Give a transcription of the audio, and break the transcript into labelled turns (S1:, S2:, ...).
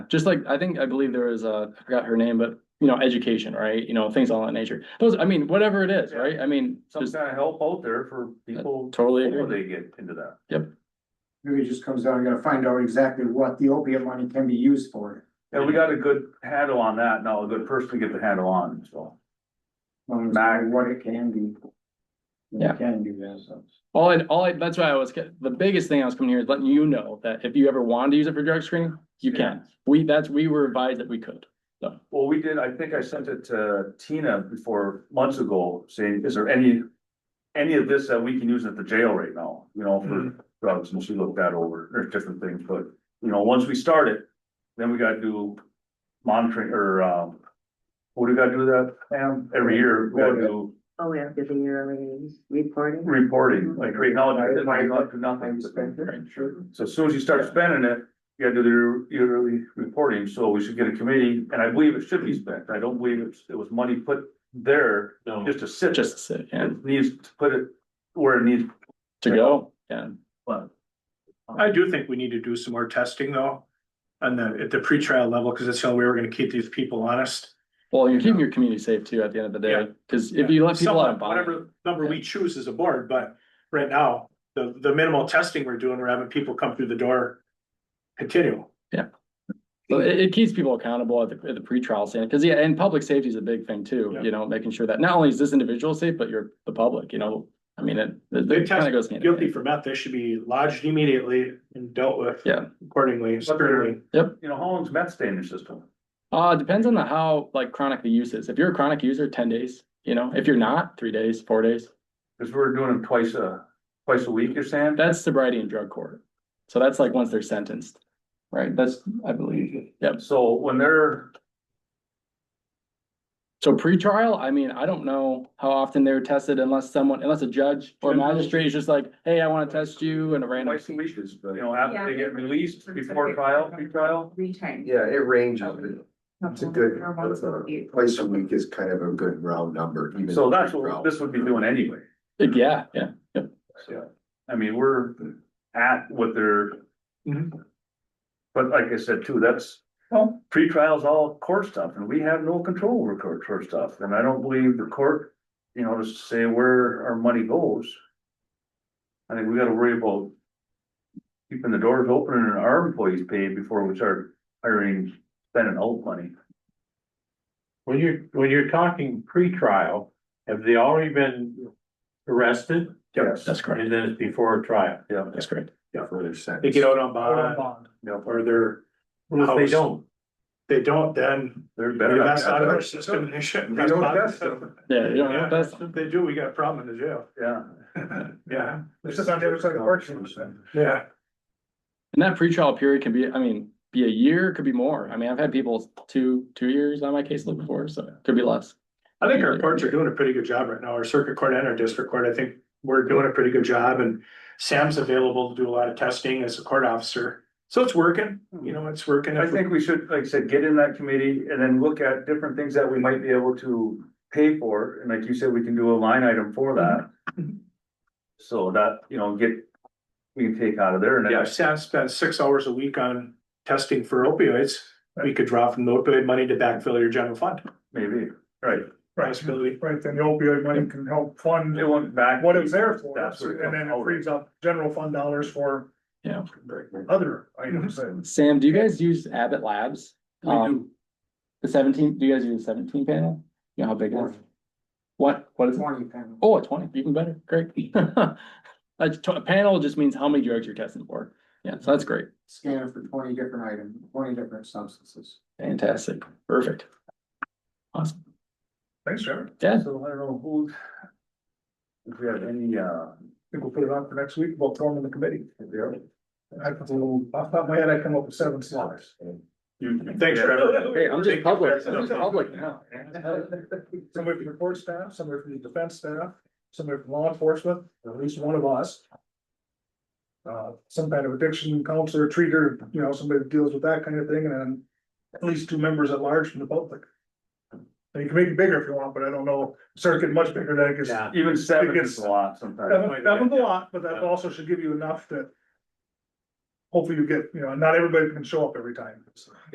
S1: just like, I think, I believe there is a, I forgot her name, but, you know, education, right? You know, things all that nature. Those, I mean, whatever it is,
S2: Yeah.
S1: right? I mean,
S2: some
S1: just
S2: kind of help out there for people
S1: totally
S2: before
S1: agree.
S2: they get into that.
S3: Maybe it just comes down, we gotta find out exactly what the opiate money can be used for.
S2: And we got a good handle on that now, a good person to get the handle on, so.
S3: um,
S2: Back.
S3: What it can be. What it
S1: Yeah.
S3: Can do that, so.
S1: All I, all I, that's why I was, the biggest thing I was coming here is letting you know that if you ever wanted to use it for drug screening, you can. We, that's, we were advised that we could.
S2: Well, we did, I think I sent it to Tina before, months ago, saying, is there any, any of this that we can use at the jail right now, you know,
S1: Mm-hmm.
S2: for drugs, and she looked that over, or different things, but, you know, once we start it, then we gotta do monitoring, or, um, what do we gotta do that, Pam? Every year, we gotta do
S4: Oh, we have to do yearly reporting.
S2: reporting, like right now, it's
S3: Mm-hmm. Right.
S2: not to nothing.
S3: it, sure.
S2: So as soon as you start spending it, you gotta do the yearly reporting, so we should get a committee, and I believe it should be spent, I don't believe it's, it was money put there
S1: No.
S2: just to sit.
S1: Just to sit and
S2: It needs to put it where it needs,
S1: to go, yeah.
S2: but
S5: I do think we need to do some more testing though. On the, at the pretrial level, because that's the only way we're gonna keep these people honest.
S1: Well, you're keeping your community safe too at the end of the day,
S5: Yeah.
S1: because if you let people out.
S5: Someone,
S1: of bond-
S5: Whatever number we choose as a board, but right now, the, the minimal testing we're doing, we're having people come through the door. Continue.
S1: So it, it keeps people accountable at the, at the pretrial stand, because yeah, and public safety is a big thing too,
S5: Yeah.
S1: you know, making sure that not only is this individual safe, but you're the public, you know. I mean, it, it-
S5: They
S1: it kind
S5: test
S1: of goes hand in
S5: Guilty
S1: hand.
S5: for meth, they should be lodged immediately and dealt with.
S1: Yeah.
S5: Accordingly, sternly.
S2: you know, how long's meth stay in your system?
S1: Uh, depends on the how like chronic the use is. If you're a chronic user, ten days, you know, if you're not, three days, four days.
S2: Cause we're doing them twice a, twice a week, you're saying?
S1: That's sobriety and drug court. So that's like once they're sentenced, right? That's, I believe. Yep.
S2: So when they're,
S1: So pretrial, I mean, I don't know how often they're tested unless someone, unless a judge or a
S2: Judge.
S1: magistrate is just like, hey, I wanna test you and a random.
S2: twice a week is, you know, after they get released, before trial, pre-trial.
S4: Three times.
S6: Yeah, it ranges. It's a good, uh,
S4: Or once a week.
S6: twice a week is kind of a good round number. even
S2: So that's what
S6: round.
S2: this would be doing anyway.
S1: Yeah, yeah.
S2: Yeah, I mean, we're at what they're.
S7: Mm-hmm.
S5: Mhm.
S2: But like I said too, that's,
S7: Oh.
S2: well, pre-trial's all court stuff and we have no control over court, court stuff, and I don't believe the court. You know, to say where our money goes. I think we gotta worry about. Keeping the doors open and our employees paid before we start hiring, spending old money.
S7: When you're, when you're talking pre-trial, have they already been arrested?
S2: Yes.
S1: That's correct.
S7: And then it's before a trial?
S2: Yeah,
S1: That's correct.
S6: Yeah, further sentence.
S5: They get out on bond
S2: yeah,
S5: or they're,
S7: Well, if
S5: House.
S7: they don't,
S5: they don't, then
S2: they're better.
S5: they're best out of our system. and They shouldn't.
S2: We don't test them.
S1: Yeah, you don't
S5: Yeah,
S1: have to-
S5: if they do, we got a problem in the jail.
S2: Yeah.
S5: Yeah,
S3: It's just on the other side of the court system.
S5: yeah.
S1: And that pretrial period can be, I mean, be a year, could be more. I mean, I've had people two, two years on my caseload before, so it could be less.
S5: I think our courts are doing a pretty good job right now, our circuit court and our district court, I think we're doing a pretty good job and Sam's available to do a lot of testing as a court officer. So it's working, you know, it's working.
S2: I think we should, like I said, get in that committee and then look at different things that we might be able to pay for, and like you said, we can do a line item for that. So that, you know, get, we can take out of there and
S5: Yeah,
S2: then
S5: if Sam spends six hours a week on testing for opioids, we could draw from the opioid money to backfill your general fund.
S2: maybe, right,
S5: Possibility.
S3: Right, then the opioid money can help fund
S2: it went back.
S3: what it's there for,
S2: That's where it
S3: and then
S2: comes
S3: it
S2: out.
S3: frees up general fund dollars for.
S1: Yeah.
S3: Other items that-
S1: Sam, do you guys use Abbott Labs?
S3: We
S1: Um, The seventeen, do you guys use the seventeen panel? You know how big it is? What, what is it?
S3: Twenty panel.
S1: Oh, a twenty, even better, great. A t- a panel just means how many drugs you're testing for. Yeah, so that's great.
S3: Scan for twenty different items, twenty different substances.
S1: Fantastic, perfect. Awesome,
S3: Thanks, Trevor.
S1: yeah,
S2: So I don't know who. If we have any, uh,
S3: I think we'll put it on for next week, we'll throw them in the committee. I put a little, off the top of my head, I come up with seven slots.
S5: Thanks, Trevor.
S1: Hey, I'm just public, I'm just public now.
S3: Somebody from the court staff, somebody from the defense staff, somebody from law enforcement, or at least one of us. Uh, some kind of addiction counselor, treater, you know, somebody that deals with that kind of thing, and then at least two members at large from the public. And you can make it bigger if you want, but I don't know, start getting much bigger than I guess.
S7: yeah,
S2: even seven
S3: Because-
S2: is a lot sometimes.
S3: That that one's a lot, but that also should give you enough that. Hopefully you get, you know, not everybody can show up every time, so.